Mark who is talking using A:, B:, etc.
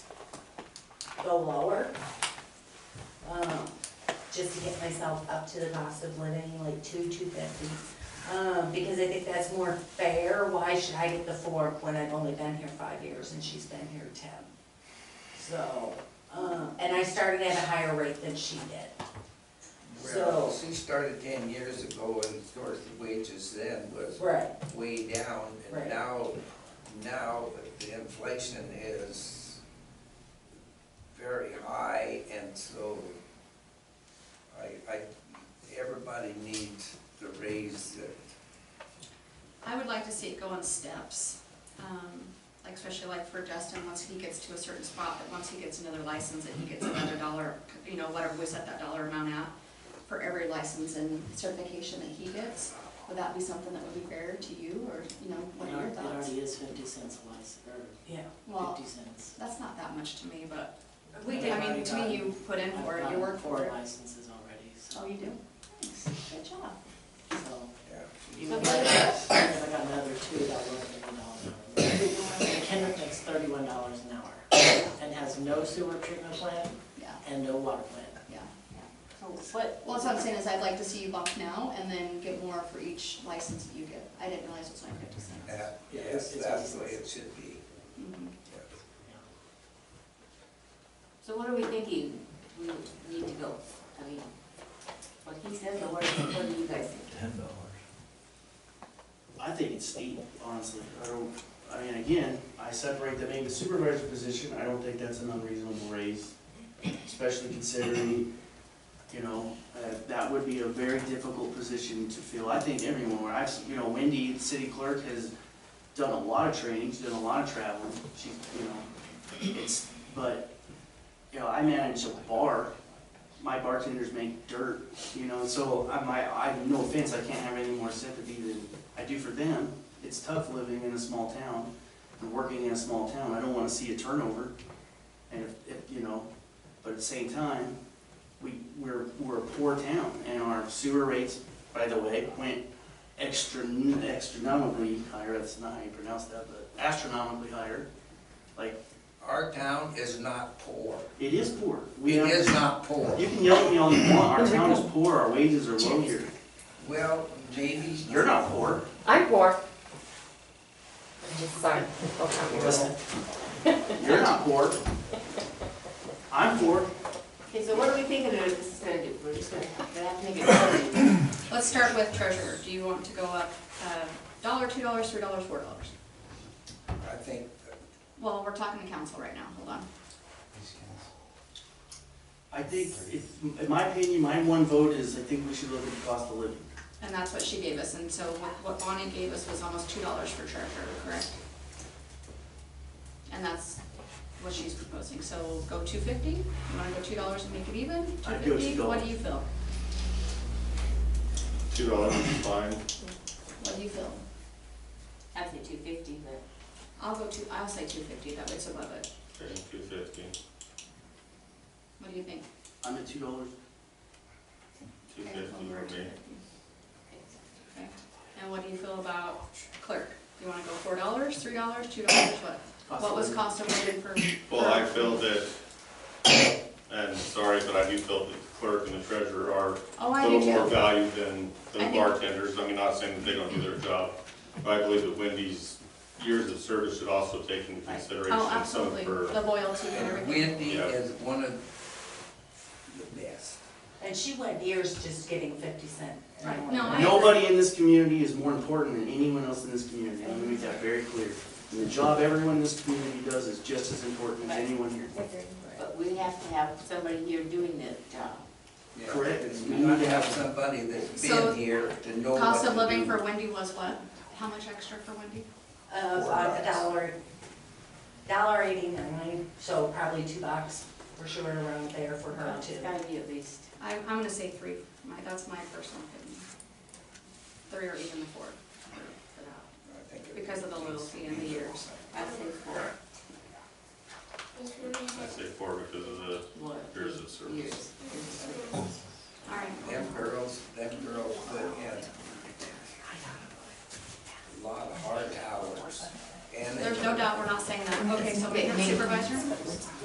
A: go lower. Um, just to get myself up to the cost of living, like two, two fifty. Um, because I think that's more fair, why should I get the four when I've only been here five years and she's been here ten? So, um, and I started at a higher rate than she did.
B: Well,
A: So-
B: she started ten years ago and of course the wages then was
A: Right.
B: way down.
A: Right.
B: And now, now the inflation is very high and so I, I, everybody needs the raise that,
C: I would like to see it go in steps, um, like especially like for Justin, once he gets to a certain spot, that once he gets another license, that he gets another dollar, you know, whatever we set that dollar amount at for every license and certification that he gets. Would that be something that would be fair to you, or, you know, what are
D: It
C: your
D: already- it
C: thoughts?
D: already is fifty cents a license,
A: Yeah.
D: or
C: Well,
D: fifty cents.
C: that's not that much to me, but,
A: We
C: I
A: did,
C: mean, to me, you put in
D: I've
C: for it, you
D: gotten
C: work for it.
D: Four licenses already, so,
C: Oh, you do? Thanks, good job.
D: so.
B: yeah.
D: Even if I if I got another two, that would have been dollars an hour. Kendrick makes thirty-one dollars an hour and has no sewer treatment plant
C: Yeah,
D: and no water plant.
C: yeah, yeah.
E: So what,
C: Well, that's what I'm saying, is I'd like to see you bump now and then get more for each license that you get. I didn't realize it was only fifty cents.
B: That- Yes,
D: it's-
B: that's the way it should be.
C: Mhm.
B: yes.
E: so what are we thinking we need to go? I mean, what he says, or what, what do you guys think?
F: Ten dollars.
G: I think it's steep, honestly. I don't, I mean, again, I separate the main supervisor position, I don't think that's an unreasonable raise, especially considering, you know, uh, that would be a very difficult position to fill. I think everyone, where I've, s- you know, Wendy, the city clerk, has done a lot of trainings, done a lot of traveling, she, you know, it's, but, you know, I manage a bar, my bartenders make dirt, you know, so I, my, I, no offense, I can't have any more sympathy than I do for them. It's tough living in a small town and working in a small town. I don't wanna see a turnover. And if, if, you know, but at the same time, we, we're, we're a poor town and our sewer rates, by the way, went extra, astronomically higher. That's not how you pronounce that, but astronomically higher. Like,
B: Our town is not poor.
G: it is poor.
B: It
G: We have-
B: is not poor.
G: You can yell at me all you want, our town is poor, our wages are low here.
B: Well, maybe.
G: You're not poor.
H: I'm poor. Sorry, I'll come here.
G: Listen. You're not poor. I'm poor.
E: Okay, so what are we thinking that this is gonna do? We're just gonna, gonna have to make it.
C: Let's start with treasurer. Do you want to go up uh, dollar, two dollars, three dollars, four dollars?
B: I think,
C: Well, we're talking to council right now, hold on.
G: I think, if, in my opinion, my one vote is I think we should look at the cost of living.
C: And that's what she gave us, and so what- what Bonnie gave us was almost two dollars for treasurer, correct? And that's what she's proposing, so go two fifty? You wanna go two dollars and make it even?
G: I'd go
C: fifty. What do
G: $2.
C: you feel?
I: Two dollars is fine.
C: What do you feel?
E: I'd say two fifty, but
C: I'll go two, I'll say two fifty, that way it's above it.
I: Okay, two fifty.
C: What do you think?
G: I'm at two dollars.
I: Two fifty for me.
C: Okay. And what do you feel about clerk? Do you wanna go four dollars, three dollars, two dollars, what?
G: Cost
C: What
G: of
C: was
G: living.
C: cost of living for?
I: Well, I feel that, and sorry, but I do feel that the clerk and the treasurer are
C: Oh, I
I: a
C: do
I: little more
C: too.
I: valued than
C: I
I: the
C: think-
I: bartenders. I mean, not saying that they don't do their job, but I believe that Wendy's years of service should also take into consideration
C: Oh,
I: some of
C: absolutely,
I: her.
C: the loyalty and
B: and
C: everything.
B: Wendy
I: Yeah.
B: is one of the best.
A: and she went years just getting fifty cent. an
C: Right.
A: hour.
C: No, I-
G: Nobody in this community is more important than anyone else in this community. Let me make that very clear. And the job everyone in this community does is just as important as anyone here.
E: but we have to have somebody here doing this job.
B: Yeah.
G: Correct.
B: It's- We need to have somebody that's
C: So,
B: been here to know what
C: Cost
B: to
C: of living
B: do.
C: for Wendy was what? How much extra for Wendy?
A: Of
B: Four
A: uh, a
B: bucks.
A: dollar, dollar eighty-nine, so probably two bucks for sure around there for her too.
E: It's gotta be at least.
C: I, I'm gonna say three, my, that's my personal opinion. Three or even the four. for that.
B: I think it-
C: Because of the loyalty and the years.
E: I'd say four.
I: I say four because of the
E: What?
I: years of service.
E: Years. Years.
C: All right.
B: Them girls, them girls put in a lot of hard hours. and they-
C: There's no doubt, we're not saying that. Okay, so maintenance supervisor?